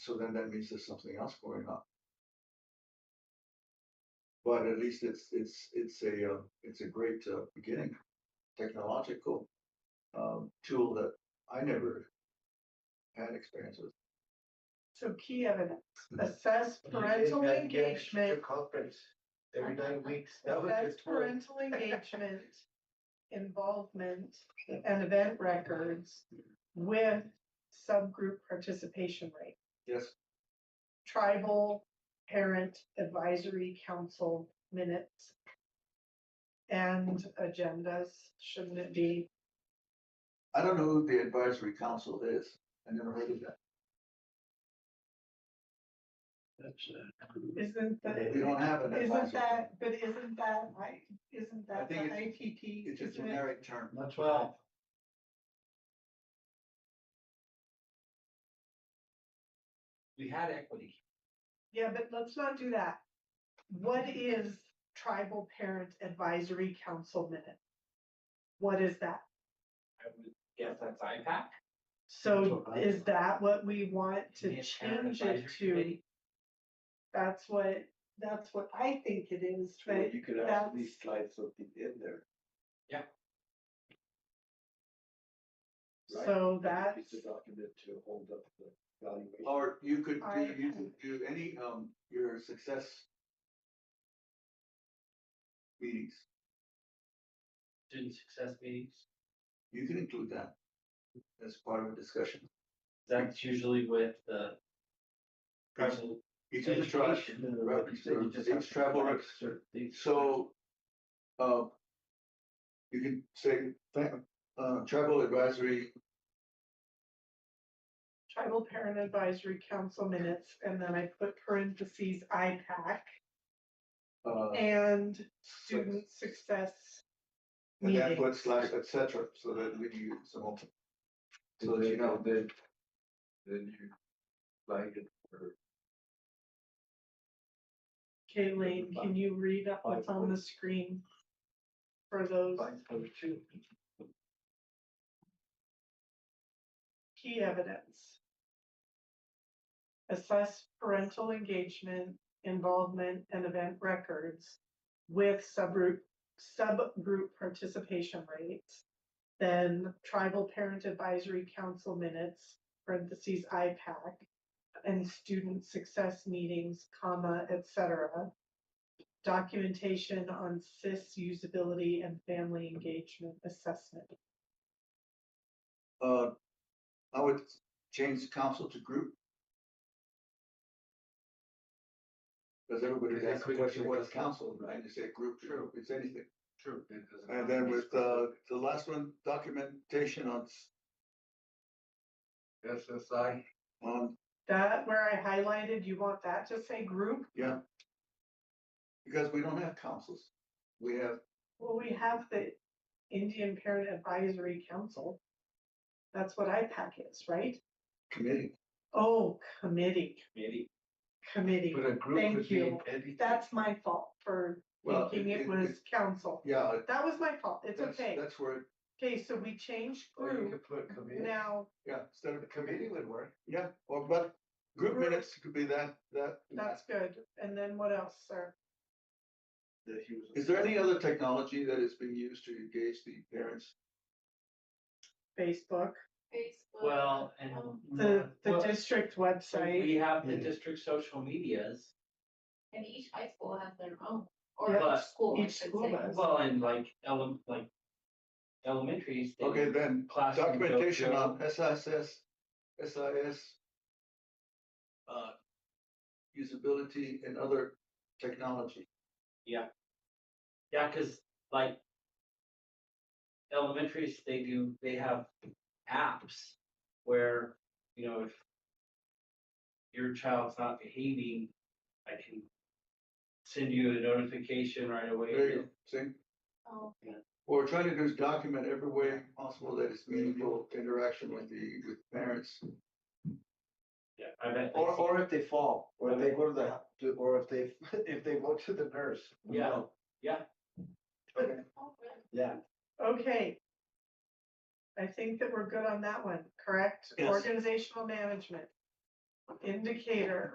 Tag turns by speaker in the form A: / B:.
A: So then that means there's something else going on. But at least it's, it's, it's a, uh, it's a great uh, beginning, technological um, tool that I never had experience with.
B: So key evidence,
A: Hmm.
B: assess parental engagement,
C: Conference every nine weeks. That was
B: assess
C: just for-
B: parental engagement, involvement and event records with subgroup participation rate.
A: Yes,
B: tribal parent advisory council minutes. And agendas, shouldn't it be?
A: I don't know who the advisory council is. I never heard of that.
C: That's, uh,
B: Isn't
A: We
B: that,
A: don't have an
B: isn't
A: advisory.
B: that, but isn't that right? Isn't
A: I
B: that the
A: think it's-
B: IPP?
A: It's a
B: Isn't it-
A: generic term.
C: That's why. We had equity.
B: Yeah, but let's not do that. What is tribal parent advisory council minute? What is that?
D: I would guess that's IPAC.
B: So
C: That's what I-
B: is that what we want to
D: Indian Parent
B: change it
D: Advisory
B: to?
D: Committee.
B: That's what, that's what I think it is,
C: Well,
B: but
C: you could
B: that's-
C: actually slide something in there. right?
B: So
C: Like a
B: that's,
C: Piece of document to hold up the valuation.
D: Oh,
A: Or you could
B: I-
A: do, you could do any, um, your success meetings.
D: Student success meetings.
A: You can include that as part of a discussion.
D: That's usually with the. Tribal.
A: Each of the tribes,
D: education and the
A: right,
D: reps,
A: so
D: you just have
A: each tribal
D: to-
A: reps,
D: these-
A: so, uh, you can say, thank, uh, tribal advisory,
B: tribal parent advisory council minutes, and then I put parentheses IPAC
A: uh,
B: and student success.
A: and then put
B: meetings.
A: slash et cetera, so that we do some open. So
C: And
A: that you
C: then-
A: know.
C: and Then, then you flag it for
B: Kayleen, can you read up what's on the screen for those
C: five oh two.
B: key evidence? Assess parental engagement, involvement, and event records with subgroup, subgroup participation rates. Then tribal parent advisory council minutes, parentheses IPAC, and student success meetings, comma, et cetera. Documentation on CIS usability and family engagement assessment.
A: Uh, I would change council to group. Because everybody's
C: Yeah,
A: asking
C: we-
A: the question,
C: we-
A: what is council, right? You say group, sure, it's anything.
C: True.
A: And then with, uh, the last one, documentation on, s-
C: SSI.
A: on,
B: That where I highlighted, you want that to say group?
A: yeah. Because we don't have councils. We have,
B: Well, we have the Indian Parent Advisory Council. That's what IPAC is, right?
A: committee,
B: Oh, committee,
D: Committee.
B: committee.
A: uh,
C: But a group
B: Thank
C: would be
B: you.
C: anything.
B: That's my fault for
A: Well,
B: thinking
A: it-
B: it
A: it-
B: was council.
A: yeah. it-
B: That was my fault. It's
A: that's- Oh,
B: okay.
A: That's where, it-
B: Okay, so we changed
C: Or you
B: group.
C: could put committee.
B: Now,
A: yeah, instead of,
C: The committee would work.
A: yeah, or but group
B: Group.
A: minutes could be that, that.
B: that's good. And then what else, sir?
C: that he was.
A: Is there any other technology that is being used to engage the parents?
B: Facebook,
E: Facebook.
D: Well, and.
B: um, the, the
D: Well,
B: district
D: so
B: website.
D: We have the
A: Yeah.
D: district social medias,
E: And each high school has their own, or
D: Yeah.
E: each school, I
B: Each
E: should
B: school
E: say.
B: does.
D: well, and like ele- like elementaries. they-
A: Okay, then
D: Classroom
A: documentation
D: dojo.
A: on SIS, SIS. uh, Usability and other technology.
D: Yeah, cause like. Elementaries, they do, they have apps where, you know, if. Your child's not behaving, I can. Send you a notification right away.
A: There you go, see?
E: Oh,
A: What we're trying to do is document every way possible that it's meaningful interaction with the, with parents.
D: Yeah, I bet. they
C: Or,
D: see-
C: or if they fall, or they go to the, to- or if they, if they go to the nurse. we
D: Yeah.
C: know.
D: Yeah.
C: Okay.
E: oh, really?
C: Yeah.
B: Okay. I think that we're good on that one, correct?
A: Yes.
B: Organizational management. indicator